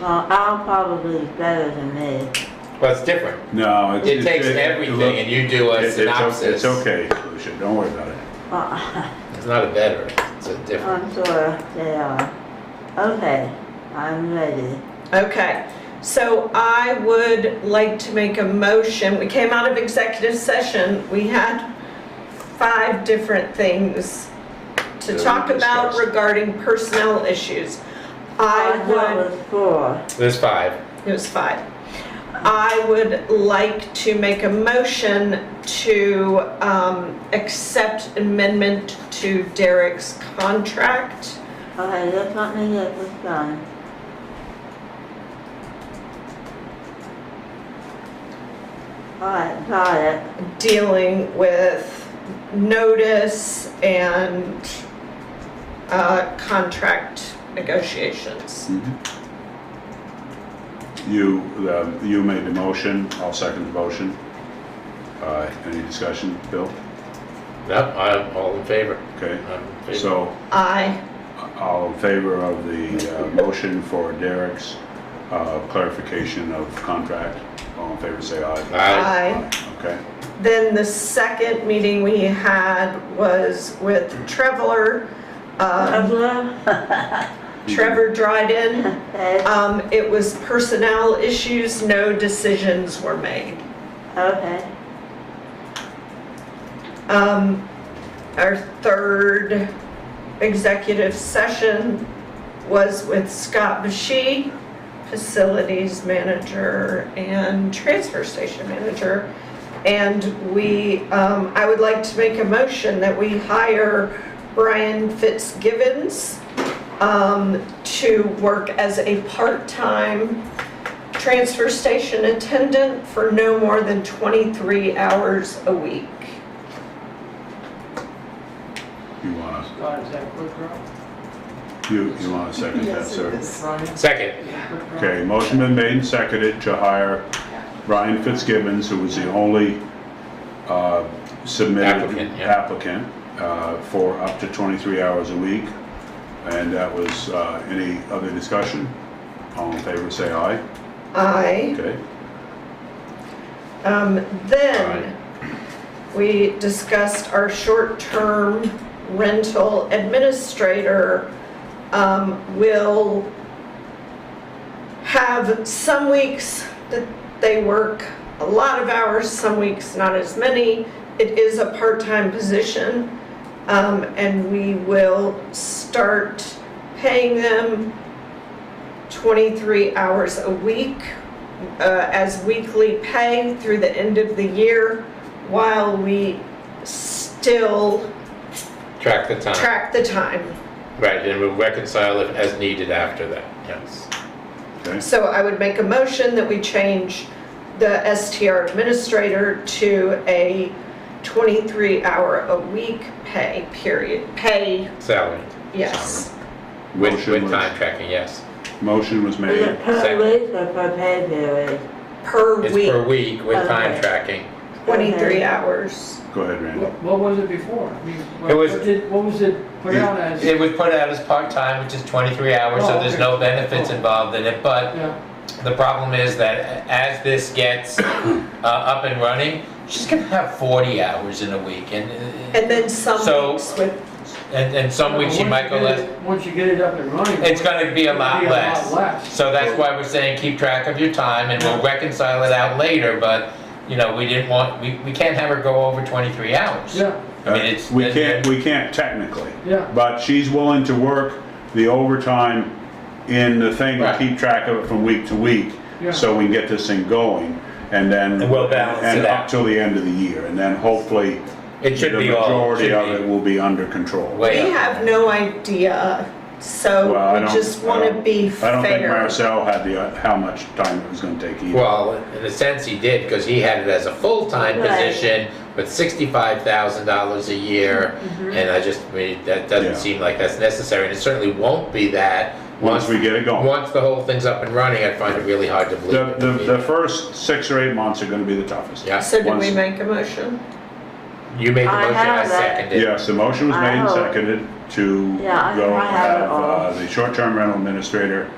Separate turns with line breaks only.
Well, I'm probably better than this.
Well, it's different.
No, it's.
It takes
it- it-
everything and you do
it-
a
it's o-
synopsis.
It's okay, Lucia, don't worry about it.
Well,
It's not a better, it's a different.
I'm sure they are. Okay, I'm ready.
Okay, so I would like to make a motion, we came out of executive session, we had five different things to
That we
talk about
discussed.
regarding personnel issues. I
thought
would,
it was four.
There's five.
it was five. I would like to make a motion to um, accept amendment to Derek's contract.
Okay, just let me get this done. Alright, got it.
dealing with notice and uh, contract negotiations.
Mm-hmm.
You, um, you made the motion, I'll second the motion. Uh, Any discussion, Bill?
No, I'm all in favor.
Okay,
I'm in Uh, favor.
so
I,
all in favor of the uh, motion for Derek's uh, clarification of contract? All in favor, say aye.
Aye.
I,
Okay,
then the second meeting we had was with Trevor, um,
Douglas?
Trevor Dryden.
Okay,
Um, It was personnel issues, no decisions were made.
okay.
Um, our third executive session was with Scott Bashy, facilities manager and transfer station manager. And we, um, I would like to make a motion that we hire Brian Fitzgibbons um, to work as a part-time transfer station attendant for no more than 23 hours a week.
you want to,
God, is that quick, Rob?
you, you want to second that, sir?
Brian?
Second.
Quick, Rob?
Okay, motion been made and seconded to hire Brian Fitzgibbons, who was the only uh, submitted
Applicant, yeah.
applicant uh, for up to 23 hours a week. And that was, uh, any other discussion? All in favor, say aye.
Aye.
Okay,
Um, Then, we discussed our short-term rental administrator um, will have some weeks that they work a lot of hours, some weeks not as many. It is a part-time position, um, and we will start paying them 23 hours a week uh, as weekly pay through the end of the year while we still
Track the time.
track the time.
Right, and we'll reconcile it as needed after that, yes.
okay,
So I would make a motion that we change the STR administrator to a 23-hour-a-week pay period, pay,
Salary.
yes,
With,
Motion
with
was-
time tracking, yes.
motion was
Is
made.
it per
Second.
week or per pay period?
per
It's
week,
per week with time
Okay.
tracking.
23 hours.
Go ahead, Randy.
What- What was it before? I mean,
It
What
was-
what did, what was it put out as?
It was put out as part-time, which is 23 hours, so
Oh,
there's
okay.
no benefits
Oh.
involved in it. But
Yeah,
The problem is that as this gets uh, up and running, she's gonna have 40 hours in a week and,
And then some
So-
weeks with,
and, and some weeks she
Once
might
you
go
get
less.
it- Once you get it up and running.
It's gonna be a
it'll
lot
be
less.
less.
So that's why we're saying keep track of your time and we'll reconcile it out later, but, you know, we didn't want, we, we can't have her go over 23 hours.
Yeah,
I mean, it's.
We can't, we can't technically.
Yeah.
But she's willing to work the overtime in the thing to
Right.
keep track of it from week to week.
Yeah.
So we can get this thing going and then.
And we'll balance
and
it out.
up till the end of the year and then hopefully.
It should be all-
The majority
should
of
be-
it will be under control.
Way
we
up.
have no idea, so
Well, I
we
don't-
just
I
want to
don't-
be fair.
I don't think Marcel had the, uh, how much time it was gonna take either.
Well, in a sense he did, because he had it as a full-time
Right.
position with sixty-five thousand dollars a year.
Mm-hmm.
And I just, I mean, that doesn't
Yeah.
seem like that's necessary, and it certainly won't be that.
Once we get it going.
Once the whole thing's up and running, I find it really hard to believe.
The,
it.
the, the first six or eight months are gonna be the toughest.
Yeah,
So did we
Once-
make a motion?
you made the
I
motion, I
have that.
seconded it.
Yes, the motion was made and
Oh.
seconded to
Yeah, I-
go
I have it
have
all.
uh, the short-term rental administrator